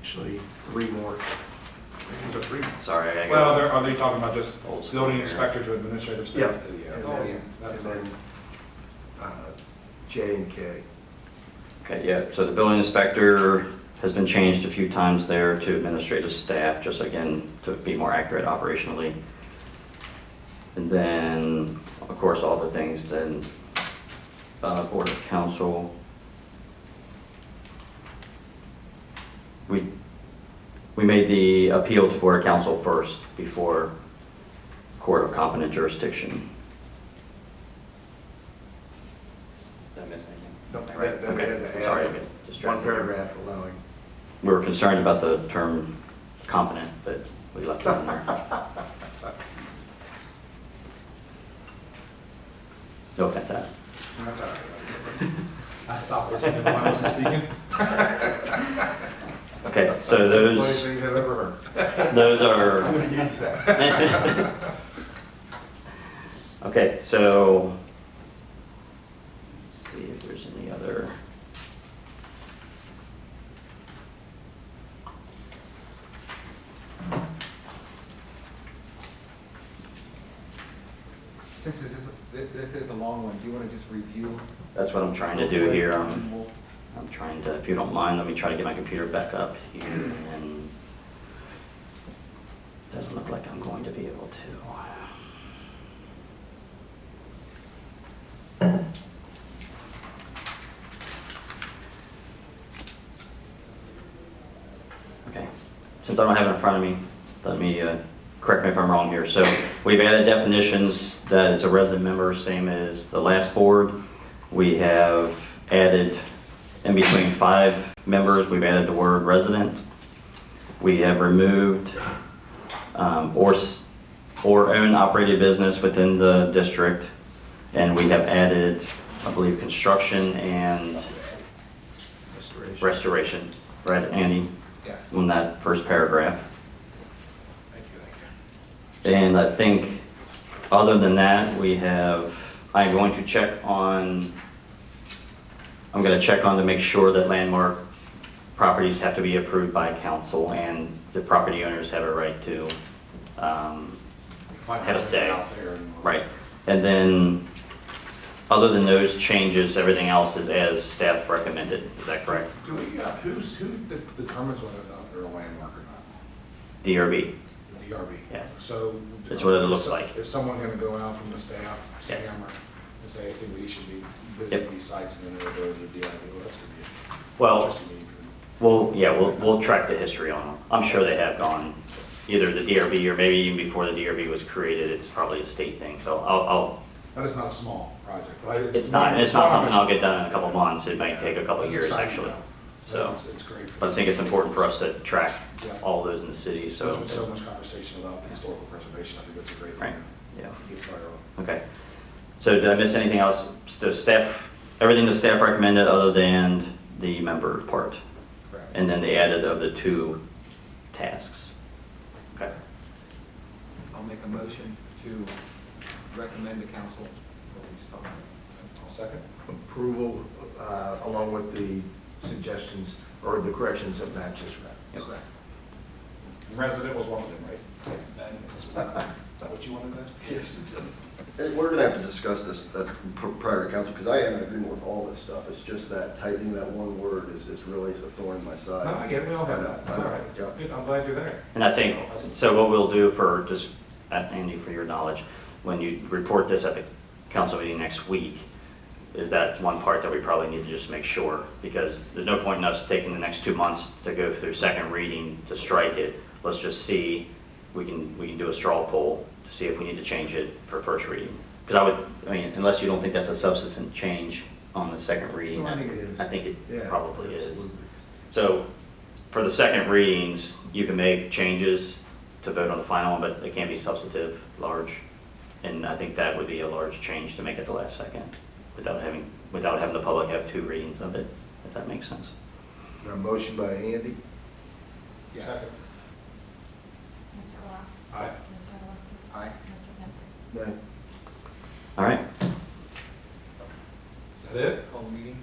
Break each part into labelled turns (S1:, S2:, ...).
S1: actually three more.
S2: Is it three?
S3: Sorry, I
S2: Well,
S3: got.
S2: they're- are they talking about just
S3: Old school
S2: building
S3: here.
S2: inspector to administrative
S1: Yeah.
S2: staff?
S1: And
S2: Oh,
S1: then, and
S2: That's
S1: then uh, J and K.
S3: Okay, yeah, so the building inspector has been changed a few times there to administrative staff, just again, to be more accurate operationally. And then, of course, all the things then, uh, Board of Council. We, we made the appeal to Board of Council first before Court of Competent Jurisdiction. Did I miss anything?
S1: No,
S3: Right,
S1: that- that-
S3: okay.
S1: that- that-
S3: Sorry, I got
S1: One
S3: distracted.
S1: paragraph allowing.
S3: We were concerned about the term competent, but we left it in there. No offense, Adam.
S2: That's all right.
S4: I stopped listening when I was speaking.
S3: Okay,
S1: Funniest
S3: so those,
S1: things I've ever heard.
S3: those
S1: I'm
S3: are,
S1: gonna use that.
S3: okay, so, let's see if there's any other.
S4: Since this is, thi- this is a long one, do you want to just review?
S3: That's what I'm trying to do here. um, I'm- I'm trying to, if you don't mind, let me try to get my computer back up here and doesn't look like I'm going to be able to. Okay, since I don't have it in front of me, let me, uh, correct me if I'm wrong here. So we've added definitions that it's a resident member, same as the last board. We have added, in between five members, we've added the word resident. We have removed um, or, s- or own operated business within the district. And we have added, I believe, construction and restoration, right, Andy?
S4: Yeah.
S3: In that first paragraph.
S4: Thank you, thank you.
S3: And I think, other than that, we have, I'm going to check on, I'm gonna check on to make sure that landmark properties have to be approved by council and the property owners have a right to, um, have a say. Right, and then, other than those changes, everything else is as staff recommended, is that correct?
S2: Do we, uh, who's, who de- determines whether or not they're a landmark or not?
S3: DRB,
S2: The DRB?
S3: Yes.
S2: So.
S3: It's what it looks like.
S2: Is someone gonna go out from the staff,
S3: Yes.
S2: Sam, or- and say, I think we should be
S3: Yep.
S2: visiting these sites, and then they'll go to the DRB, well, that's gonna be.
S3: well.
S2: interesting.
S3: Well, yeah, we'll, we'll track the history on them. I'm sure they have gone, either the DRB or maybe even before the DRB was created, it's probably a state thing, so I'll, I'll,
S2: But it's not a small project, right?
S3: it's not, it's not something I'll get done in a couple months, it might take a couple of years, actually. So,
S2: It's it's great. for
S3: but I think it's important for us to track
S2: Yeah.
S3: all those in the city, so.
S2: There's been so much conversation about historical preservation, I think that's a great
S3: Right,
S2: thing.
S3: yeah.
S2: to Get started on.
S3: Okay. So did I miss anything else? So staff, everything the staff recommended other than the member part?
S4: Correct.
S3: And then the added of the two tasks? Okay.
S4: I'll make a motion to recommend to council what we just talked about.
S2: I'll second.
S1: Approval uh, along with the suggestions or the corrections that Matt just read.
S2: Second. Resident was one of them, right? That what you wanted to? Yes.
S5: And We're gonna have to discuss this uh, pr- prior to council, because I am in agreement with all this stuff. It's just that tightening that one word is, is really a thorn in my side.
S2: No, Oh, I get it, we all have that, it's all right,
S5: Yeah.
S2: Good, I'm glad you're there.
S3: And I think, so what we'll do for, just, uh, Andy, for your knowledge, when you report this at the council meeting next week, is that one part that we probably need to just make sure, because there's no point in us taking the next two months to go through second reading to strike it. Let's just see, we can, we can do a straw poll to see if we need to change it for first reading. Because I would, I mean, unless you don't think that's a substantive change on the second reading.
S1: Well, I think it is.
S3: I think
S1: Yeah,
S3: it probably is.
S1: absolutely.
S3: So for the second readings, you can make changes to vote on the final, but it can't be substantive, large. And I think that would be a large change to make at the last second without having, without having the public have two readings of it, if that makes sense.
S1: Got a motion by Andy,
S4: Yeah.
S6: Mr. Rock?
S2: Aye.
S6: Mr. Lawson?
S4: Aye.
S6: Mr. Penfield?
S1: Matt,
S3: All right.
S2: Is that it?
S4: Call the meeting.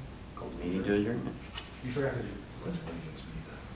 S3: Meeting to adjournment.
S2: You forgot to do.